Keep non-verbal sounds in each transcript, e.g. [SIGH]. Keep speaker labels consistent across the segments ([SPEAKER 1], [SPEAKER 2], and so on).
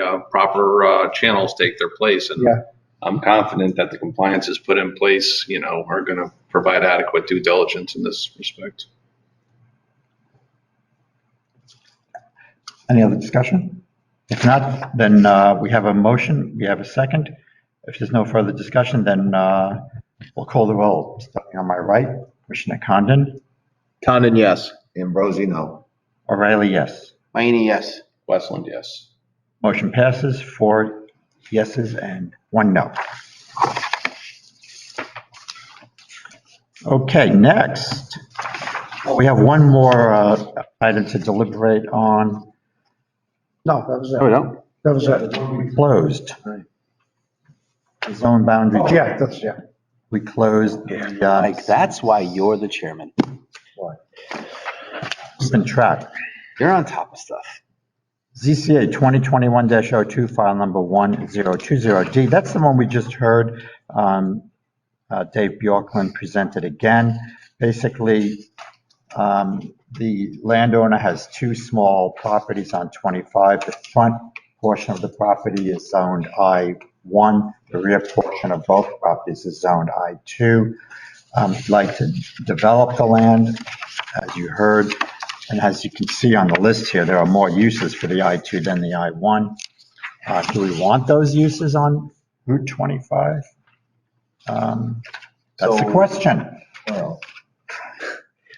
[SPEAKER 1] uh, proper uh, channels take their place. And
[SPEAKER 2] Yeah.
[SPEAKER 1] I'm confident that the compliances put in place, you know, are going to provide adequate due diligence in this respect.
[SPEAKER 2] Any other discussion? If not, then uh, we have a motion, we have a second. If there's no further discussion, then uh, we'll call the roll. Starting on my right, Commissioner Condon,
[SPEAKER 3] Condon, yes.
[SPEAKER 4] Ambrosi, no.
[SPEAKER 2] O'Reilly, yes.
[SPEAKER 3] Mayini, yes.
[SPEAKER 1] Westland, yes.
[SPEAKER 2] Motion passes, four yeses and one no. Okay, next, we have one more uh, item to deliberate on.
[SPEAKER 5] No, that was it.
[SPEAKER 4] Oh,
[SPEAKER 3] There we go.
[SPEAKER 5] That was it.
[SPEAKER 2] We Closed. The Zone boundary.
[SPEAKER 5] Yeah, that's, yeah.
[SPEAKER 2] We closed the, uh,
[SPEAKER 3] Mike, that's why you're the chairman.
[SPEAKER 2] keeping track.
[SPEAKER 3] You're on top of stuff.
[SPEAKER 2] ZCA 2021-02, file number 1020D. That's the one we just heard. um, uh, Dave Bjorklund presented again. Basically, um, the landowner has two small properties on 25. The front portion of the property is zoned I1. The rear portion of both properties is zoned I2. Um, he'd Like to develop the land, as you heard. And as you can see on the list here, there are more uses for the I2 than the I1. Uh, Do we want those uses on Route 25? Um, That's the
[SPEAKER 4] So-
[SPEAKER 2] question.
[SPEAKER 4] Well,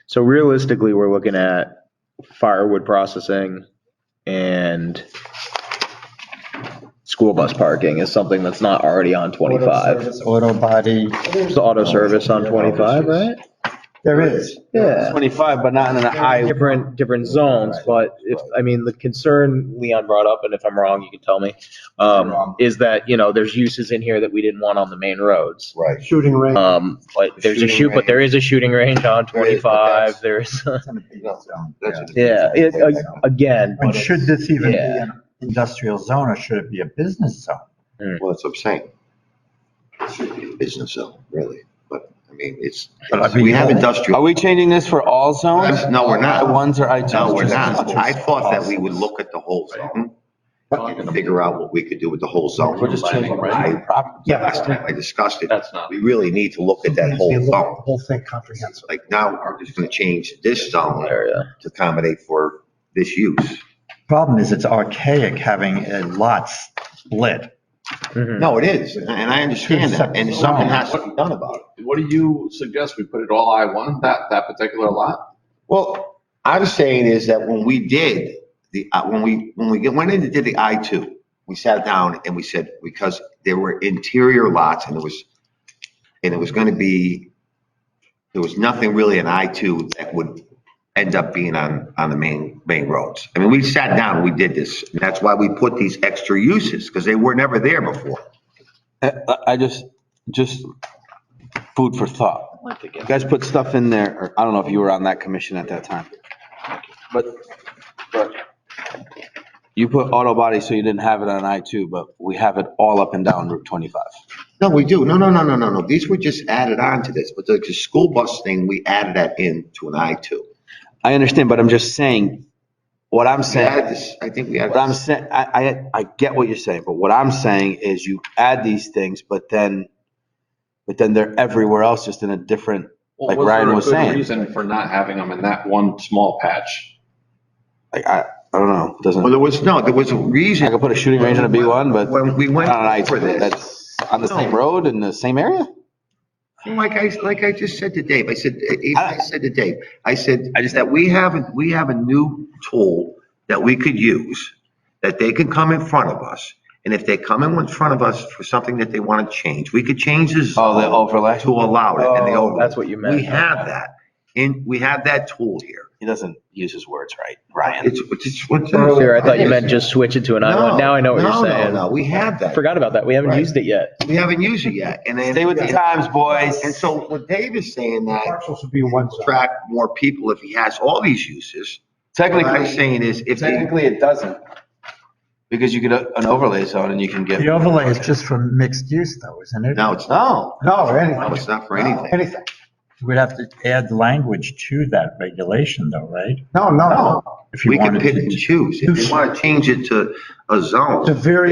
[SPEAKER 6] So realistically, we're looking at firewood processing and school bus parking is something that's not already on 25.
[SPEAKER 2] Auto body,
[SPEAKER 6] There's auto service on 25, right?
[SPEAKER 2] there is.
[SPEAKER 6] Yeah.
[SPEAKER 3] 25, but not in an I.
[SPEAKER 6] Different, different zones, but if, I mean, the concern Leon brought up, and if I'm wrong, you can tell me, um, is that, you know, there's uses in here that we didn't want on the main roads.
[SPEAKER 4] Right.
[SPEAKER 5] Shooting range.
[SPEAKER 6] Um, but there's a
[SPEAKER 4] Shooting
[SPEAKER 6] shoot, but there is a shooting range on
[SPEAKER 4] There is, but
[SPEAKER 6] 25, there's, [LAUGHS]
[SPEAKER 2] It's in a big zone.
[SPEAKER 4] That's a-
[SPEAKER 6] yeah, it-
[SPEAKER 4] Right now.
[SPEAKER 6] again.
[SPEAKER 2] But should this even be
[SPEAKER 6] Yeah.
[SPEAKER 2] an industrial zone or should it be a business zone?
[SPEAKER 4] Well, that's what I'm saying. It should be a Business zone, really, but, I mean, it's,
[SPEAKER 2] But I mean-
[SPEAKER 4] we have
[SPEAKER 3] Are
[SPEAKER 4] industrial.
[SPEAKER 3] we changing this for all zones?
[SPEAKER 4] No, we're not.
[SPEAKER 3] I1s or I2s?
[SPEAKER 4] No, we're not. I thought that we would look at the whole zone and figure out what we could do with the whole zone.
[SPEAKER 1] We're just changing
[SPEAKER 4] I-
[SPEAKER 5] Yeah.
[SPEAKER 4] Last time I discussed it,
[SPEAKER 1] That's not.
[SPEAKER 4] we really need to look at that
[SPEAKER 5] They
[SPEAKER 4] whole
[SPEAKER 5] look at the
[SPEAKER 4] zone.
[SPEAKER 5] Whole thing comprehensive.
[SPEAKER 4] Like now, we're just gonna change this zone
[SPEAKER 6] Area.
[SPEAKER 4] to accommodate for this use.
[SPEAKER 2] Problem is it's archaic having uh, a lot split.
[SPEAKER 4] No, it is, and I understand that, and something has to be done about it.
[SPEAKER 1] What do you suggest? We put it all I-1, that, that particular lot?
[SPEAKER 4] Well, I'm saying is that when we did the, uh, when we, when we get- went in and did the I two, we sat down and we said, because there were interior lots and there was, and it was gonna be, there was nothing really in I two that would end up being on, on the main, main roads. I mean, we sat down, and we did this, and that's why we put these extra uses, because they were never there before.
[SPEAKER 3] I- I just, just food for thought. You guys put stuff in there, or I don't know if you were on that commission at that time. But, but you put auto body, so you didn't have it on I two, but we have it all up and down Route twenty-five.
[SPEAKER 4] No, we do. No, no, no, no, no, no. These were just added on to this, but the, the school bus thing, we added that in to an I two.
[SPEAKER 3] I understand, but I'm just saying, what I'm
[SPEAKER 4] We
[SPEAKER 3] saying,
[SPEAKER 4] added this, I think we added.
[SPEAKER 3] what I'm saying, I, I, I get what you're saying, but what I'm saying is you add these things, but then, but then they're everywhere else, just in a different, Like Ryan was saying.
[SPEAKER 1] Reason for not having them in that one small patch?
[SPEAKER 3] like, I, I don't know, it
[SPEAKER 4] Well,
[SPEAKER 3] doesn't.
[SPEAKER 4] there was, no, there was a
[SPEAKER 3] I
[SPEAKER 4] reason
[SPEAKER 3] could put a shooting range in a B one, but.
[SPEAKER 4] when we went
[SPEAKER 3] Not on
[SPEAKER 4] for
[SPEAKER 3] I-2,
[SPEAKER 4] this.
[SPEAKER 3] that's on the same road in the same area?
[SPEAKER 4] Like I, like I just said to Dave, I said, eh, I
[SPEAKER 3] I-
[SPEAKER 4] said to Dave, I said,
[SPEAKER 3] I just-
[SPEAKER 4] that we have, a- we have a new tool that we could use, that they can come in front of us. And if they come in front of us for something that they want to change, we could change this.
[SPEAKER 3] Oh, the overlay?
[SPEAKER 4] To allow it and the
[SPEAKER 6] Oh,
[SPEAKER 4] overlay.
[SPEAKER 6] that's what you meant.
[SPEAKER 4] We have that. And we have that tool here.
[SPEAKER 3] He doesn't use his words right, Ryan.
[SPEAKER 4] It's, it's- it's. what's-
[SPEAKER 6] Earlier, I thought you meant just switch it to an I1.
[SPEAKER 4] No,
[SPEAKER 6] Now I know what
[SPEAKER 4] no,
[SPEAKER 6] you're
[SPEAKER 4] no,
[SPEAKER 6] saying.
[SPEAKER 4] No, we have that.
[SPEAKER 6] Forgot about that. We haven't
[SPEAKER 4] Right.
[SPEAKER 6] used it yet.
[SPEAKER 4] We haven't used it yet. And then.
[SPEAKER 3] Stay with the times, boys.
[SPEAKER 4] And so what Dave is saying that
[SPEAKER 5] Parcels would be one zone.
[SPEAKER 4] attract more people if he has all these uses. What I'm
[SPEAKER 3] Technically,
[SPEAKER 4] saying is if they,
[SPEAKER 3] technically it doesn't. Because you get a- an overlay zone and you can get,
[SPEAKER 2] The overlay is just for mixed use though, isn't it?
[SPEAKER 4] no, it's not,
[SPEAKER 3] no,
[SPEAKER 5] No,
[SPEAKER 4] no,
[SPEAKER 5] anything,
[SPEAKER 4] it's not for anything.
[SPEAKER 5] anything.
[SPEAKER 2] we'd have to add language to that regulation though, right?
[SPEAKER 5] No, no, no.
[SPEAKER 2] If you
[SPEAKER 4] We can
[SPEAKER 2] wanted
[SPEAKER 4] pick
[SPEAKER 2] to-
[SPEAKER 4] and choose. If you want to change it to a zone.
[SPEAKER 5] It's a very